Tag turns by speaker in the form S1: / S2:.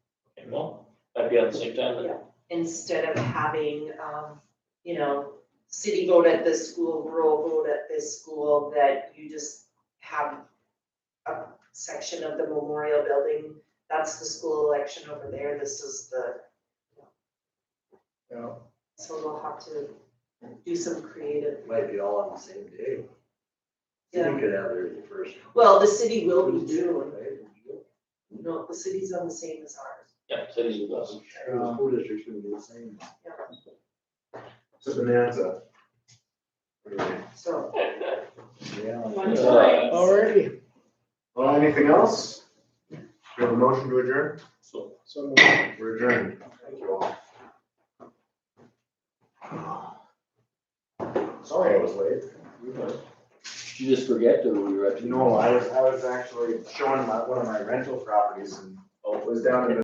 S1: no, that'd be at the same time,
S2: Yeah. instead of having, um, you know, city vote at this school, rural vote at this school, that you just have a section of the memorial building, that's the school election over there, this is the,
S3: Yeah,
S2: so we'll have to do some creative.
S3: it might be all on the same day.
S2: Yeah,
S3: You could have theirs the first.
S2: well, the city will be June,
S3: Right?
S2: no, the city's on the same as ours.
S1: yeah, cities with us.
S3: The school district's gonna be the same.
S4: It's a bonanza. Anyway.
S2: So,
S3: Yeah.
S2: One
S1: Uh,
S5: Alrighty,
S4: Well, anything else? Do you have a motion to adjourn?
S1: So,
S5: so
S4: We're adjourned. Thank you all. Sorry I was late.
S1: did you just forget or were you actually?
S4: No, I was, I was actually showing my, one of my rental properties and oh, it was down in the